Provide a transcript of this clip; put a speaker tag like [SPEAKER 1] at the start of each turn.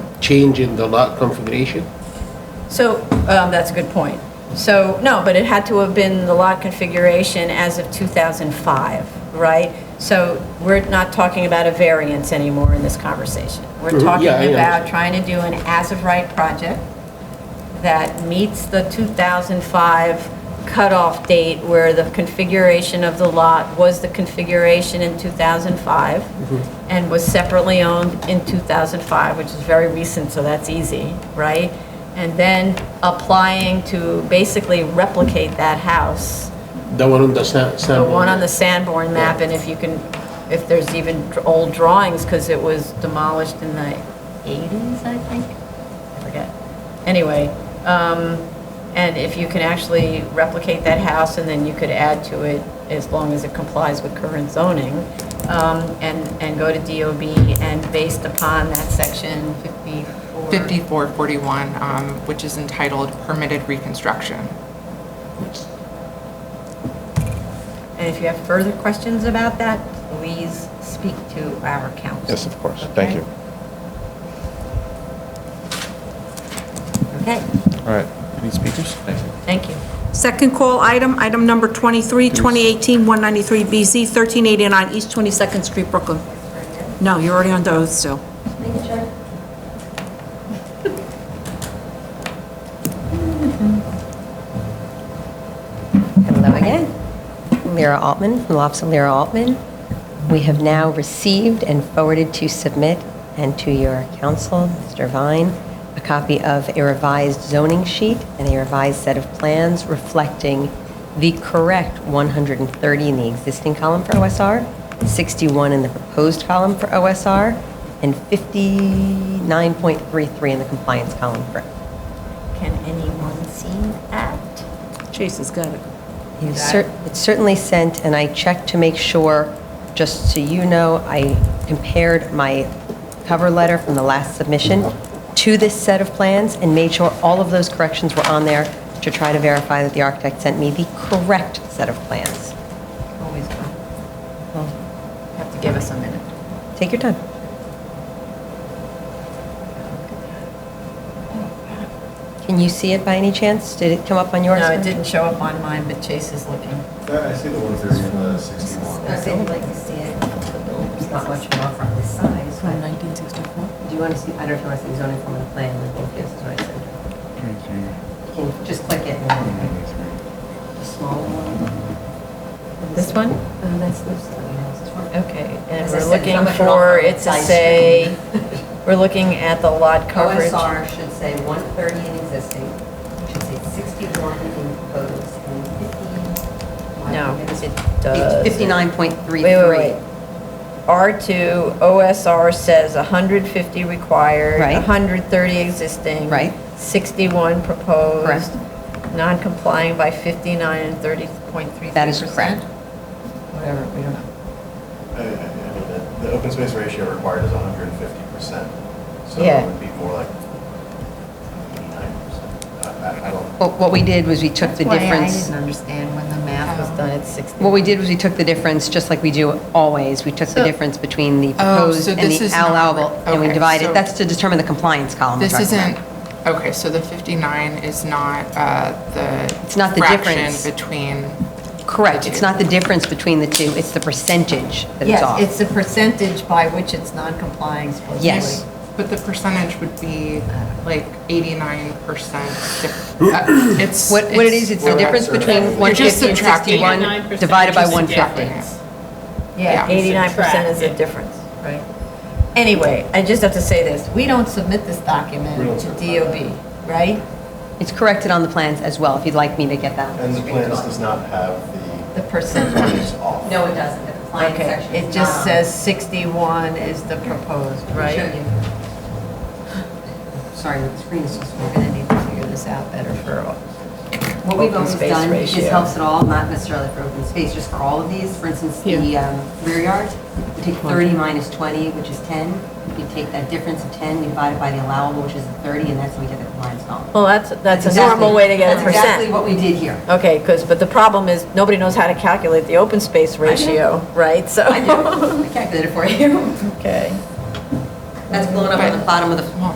[SPEAKER 1] change in the lot configuration?
[SPEAKER 2] So, um, that's a good point. So, no, but it had to have been the lot configuration as of 2005, right? So we're not talking about a variance anymore in this conversation. We're
[SPEAKER 1] Mhm,
[SPEAKER 2] talking
[SPEAKER 1] yeah, I
[SPEAKER 2] about
[SPEAKER 1] understand.
[SPEAKER 2] trying to do an as-of-right project that meets the 2005 cutoff date where the configuration of the lot was the configuration in 2005 and was separately owned in 2005, which is very recent, so that's easy, right? And then applying to basically replicate that house,
[SPEAKER 1] The one on the San, San.
[SPEAKER 2] the one on the Sanborn map, and if you can, if there's even old drawings, because it was demolished in the 80s, I think? I forget. Anyway, um, and if you can actually replicate that house, and then you could add to it as long as it complies with current zoning, um, and, and go to DOB, and based upon that section 54.
[SPEAKER 3] 5441, um, which is entitled Permitted Reconstruction.
[SPEAKER 2] And if you have further questions about that, please speak to our council.
[SPEAKER 4] Yes, of course. Thank you.
[SPEAKER 2] Okay,
[SPEAKER 4] All right. Any speakers? Thank you.
[SPEAKER 2] thank you.
[SPEAKER 5] Second call item, item number 23, 2018-193BZ, 1389 East 22nd Street, Brooklyn. No, you're already on oath still.
[SPEAKER 6] Hello again. Lyra Altman from the Office of Lyra Altman. We have now received and forwarded to submit and to your council, Mr. Vine, a copy of a revised zoning sheet and a revised set of plans reflecting the correct 130 in the existing column for OSR, 61 in the proposed column for OSR, and 59.33 in the compliance column for
[SPEAKER 2] Can anyone see that?
[SPEAKER 5] Jason's got it.
[SPEAKER 6] It was cer- It's certainly sent, and I checked to make sure, just so you know, I compared my cover letter from the last submission to this set of plans and made sure all of those corrections were on there to try to verify that the architect sent me the correct set of plans.
[SPEAKER 2] Always come. Have to give us a minute.
[SPEAKER 6] Take your time. Can you see it by any chance? Did it come up on yours?
[SPEAKER 2] No, it didn't show up on mine, but Chase is looking.
[SPEAKER 7] I see the one thirty and the sixty-one.
[SPEAKER 6] I'd like to see it. There's not much more from this side, so I-
[SPEAKER 3] 1964.
[SPEAKER 6] Do you want to see, I don't know if you want to see zoning from the plan, I think this is what I said. Can you just click it and then the smaller one?
[SPEAKER 2] This one?
[SPEAKER 6] Uh, That's this one.
[SPEAKER 2] Okay, and
[SPEAKER 6] As I
[SPEAKER 2] we're
[SPEAKER 6] said,
[SPEAKER 2] looking
[SPEAKER 6] I'm a-
[SPEAKER 2] for it to
[SPEAKER 6] Size.
[SPEAKER 2] say, we're looking at the lot coverage.
[SPEAKER 6] OSR should say 130 in existing, should say 61 in proposed, and 50.
[SPEAKER 2] No, it does.
[SPEAKER 6] 59.33.
[SPEAKER 2] Wait, wait, wait. R2, OSR says 150 required.
[SPEAKER 6] Right.
[SPEAKER 2] 130 existing.
[SPEAKER 6] Right.
[SPEAKER 2] 61 proposed.
[SPEAKER 6] Correct.
[SPEAKER 2] Non-complying by 59 and 30.33%.
[SPEAKER 6] That is correct.
[SPEAKER 2] Whatever, we don't know.
[SPEAKER 7] I I mean, the- the open space ratio required is hundred and fifty percent, so
[SPEAKER 2] Yeah.
[SPEAKER 7] it would be more like eighty-nine percent. I, I don't,
[SPEAKER 6] What what we did was we took the
[SPEAKER 2] Why
[SPEAKER 6] difference.
[SPEAKER 2] I didn't understand when the math was done at 60.
[SPEAKER 6] What we did was we took the difference, just like we do always, we took the
[SPEAKER 3] So-
[SPEAKER 6] difference between the
[SPEAKER 3] Oh, so
[SPEAKER 6] proposed and
[SPEAKER 3] this
[SPEAKER 6] the
[SPEAKER 3] is not-
[SPEAKER 6] allowable, and
[SPEAKER 3] okay,
[SPEAKER 6] we
[SPEAKER 3] so-
[SPEAKER 6] divided, that's to determine the compliance column.
[SPEAKER 3] This
[SPEAKER 6] we're talking about.
[SPEAKER 3] isn't, okay, so the 59 is not uh, the.
[SPEAKER 6] It's not the difference.
[SPEAKER 3] Fraction between.
[SPEAKER 6] Correct, it's not the difference between the two, it's the percentage that it's off.
[SPEAKER 2] Yes, it's the percentage by which it's non-complying supposedly.
[SPEAKER 6] Yes.
[SPEAKER 3] But the percentage would be like 89%. diff- uh, It's.
[SPEAKER 6] What what it is, it's the
[SPEAKER 7] We're not
[SPEAKER 6] difference
[SPEAKER 7] sure.
[SPEAKER 6] between
[SPEAKER 3] You're just
[SPEAKER 6] 150 and
[SPEAKER 3] subtracting it.
[SPEAKER 6] 61 divided by 150.
[SPEAKER 2] Yeah,
[SPEAKER 3] Yeah.
[SPEAKER 2] 89% is the difference, right? Anyway, I just have to say this, we don't submit this
[SPEAKER 7] We don't
[SPEAKER 2] document to
[SPEAKER 7] certify
[SPEAKER 2] DOB, right?
[SPEAKER 6] It's corrected on the plans as well, if you'd like me to get that.
[SPEAKER 7] and the plans does not have
[SPEAKER 2] The
[SPEAKER 7] the
[SPEAKER 2] percentage.
[SPEAKER 7] percentage off.
[SPEAKER 6] No, it doesn't, the compliance
[SPEAKER 2] Okay,
[SPEAKER 6] section
[SPEAKER 2] it
[SPEAKER 6] is
[SPEAKER 2] just
[SPEAKER 6] not on.
[SPEAKER 2] says 61 is the proposed, right?
[SPEAKER 6] Sorry, the screen is just
[SPEAKER 2] We're gonna need to figure this out better for,
[SPEAKER 6] What we've
[SPEAKER 2] Open
[SPEAKER 6] always
[SPEAKER 2] space
[SPEAKER 6] done, this
[SPEAKER 2] ratio.
[SPEAKER 6] helps at all, not necessarily for open space, just for all of these, for instance, the um, rear yard, you take 30 minus 20, which is 10, you take that difference of 10, you divide it by the allowable, which is 30, and that's how we get the compliance column.
[SPEAKER 2] well, that's, that's a
[SPEAKER 6] exactly-
[SPEAKER 2] normal way to get a
[SPEAKER 6] That's exactly
[SPEAKER 2] percent.
[SPEAKER 6] what we did here.
[SPEAKER 2] Okay, because, but the problem is, nobody knows how to calculate the open space ratio, right? So,
[SPEAKER 6] I do, I calculated it for you.
[SPEAKER 2] okay.
[SPEAKER 6] That's blown up on the bottom of the
[SPEAKER 3] Well,